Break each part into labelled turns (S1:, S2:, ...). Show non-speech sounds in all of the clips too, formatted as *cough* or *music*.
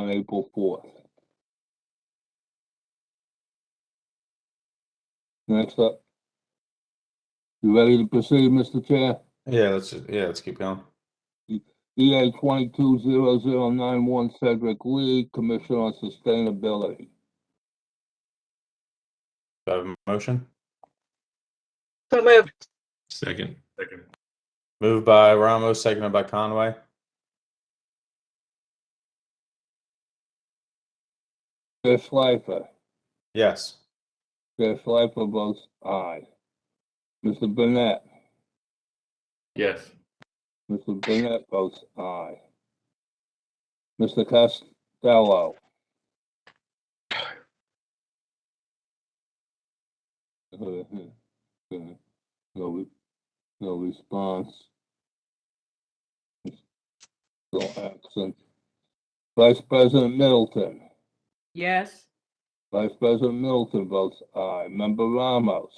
S1: April fourth. Next up. You ready to proceed, Mr. Chair?
S2: Yeah, let's, yeah, let's keep going.
S1: EA twenty-two zero zero nine one Cedric Lee, Commissioner on Sustainability.
S2: Do I have a motion?
S3: So moved.
S4: Second.
S2: Moved by Ramos, seconded by Conway.
S1: Chair Schleifer,
S2: Yes.
S1: Chair Schleifer votes aye. Mr. Burnett,
S4: Yes.
S1: Mr. Burnett votes aye. Mr. Costello. *laughs* No, re- no response. No action. Vice President Middleton.
S3: Yes.
S1: Vice President Middleton votes aye. Member Ramos.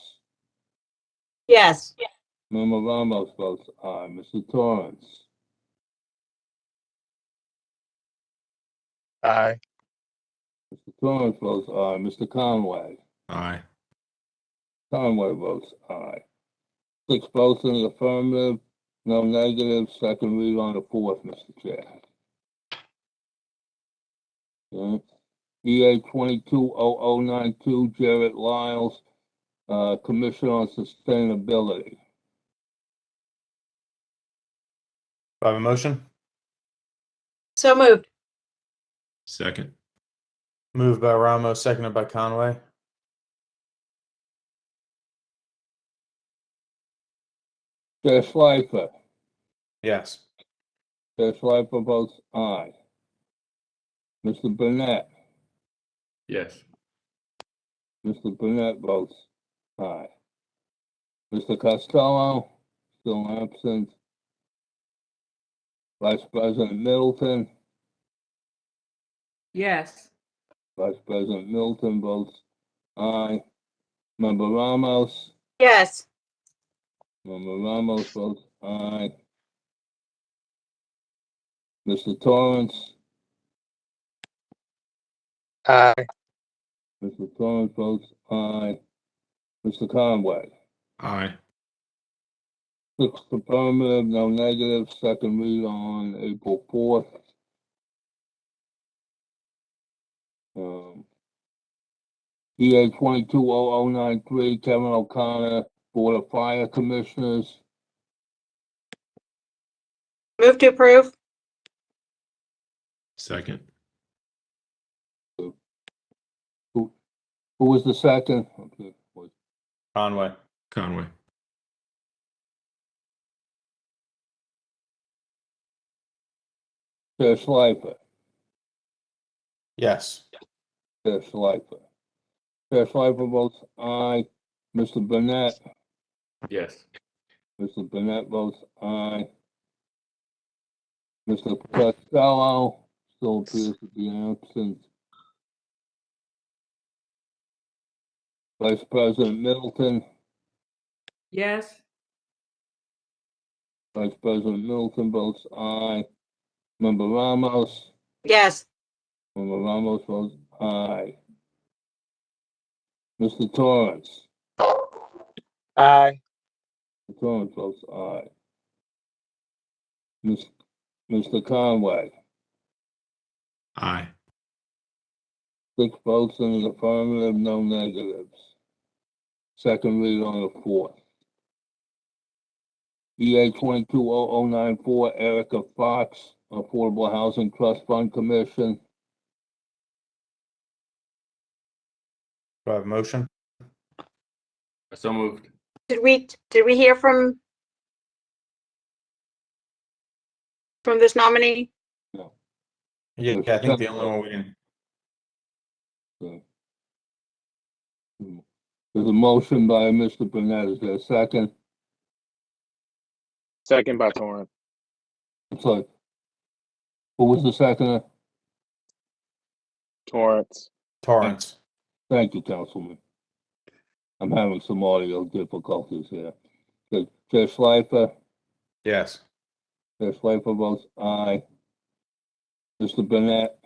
S3: Yes.
S1: Member Ramos votes aye. Mr. uh, Torrance.
S5: Aye.
S1: Mr. Torrance votes aye. Mr. Conway.
S4: Aye.
S1: Conway votes aye. Six votes in the affirmative, no negative. Second read on the fourth, Mr. Chair. Okay. EA twenty-two oh oh nine two Jared Lyles, uh, Commissioner on Sustainability.
S2: Do I have a motion?
S3: So moved.
S4: Second.
S2: Moved by Ramos, seconded by Conway.
S1: Chair Schleifer.
S2: Yes.
S1: Chair Schleifer votes aye. Mr. Burnett,
S4: Yes.
S1: Mr. Burnett votes aye. Mr. Costello, still absent. Vice President Middleton,
S3: Yes.
S1: Vice President Middleton votes aye. Member Ramos,
S3: Yes.
S1: Member Ramos votes aye. Mr. Torrance?
S5: Aye.
S1: Mr. Torrance votes aye. Mr. Conway?
S4: Aye.
S1: Six affirmative, no negative, second read on April fourth. Um, EA twenty-two oh oh nine three, Kevin O'Connor, Board of Fire Commissioners.
S3: Move to approve?
S4: Second.
S1: Who was the second? Okay, wait.
S2: Conway.
S4: Conway.
S1: Chair Schleifer,
S2: Yes.
S1: Chair Schleifer. Chair Schleifer votes aye. Mr. Burnett,
S4: Yes.
S1: Mr. Burnett votes aye. Mr. Costello still appears to be absent. Vice President Middleton,
S3: Yes.
S1: Vice President Middleton votes aye. Member Ramos,
S3: Yes.
S1: Member Ramos votes aye. Mr. Torrance.
S5: Aye.
S1: Torrance votes aye. Mis- Mr. Conway,
S4: Aye.
S1: six votes in the affirmative, no negatives. Second read on the fourth. EA twenty-two oh oh nine four Erica Fox, Affordable Housing Trust Fund Commission.
S2: Do I have a motion?
S4: So moved.
S3: Did we, did we hear from from this nominee?
S2: Yeah, I think the only one we can,
S1: There's a motion by Mr. Burnett. Is there a second?
S5: Second by Torrance.
S1: I'm sorry. Who was the second?
S5: Torrance.
S2: Torrance.
S1: Thank you, Councilman. I'm having some audio difficulties here. Chair Chair Schleifer,
S2: Yes.
S1: Chair Schleifer votes aye. Mr. Burnett,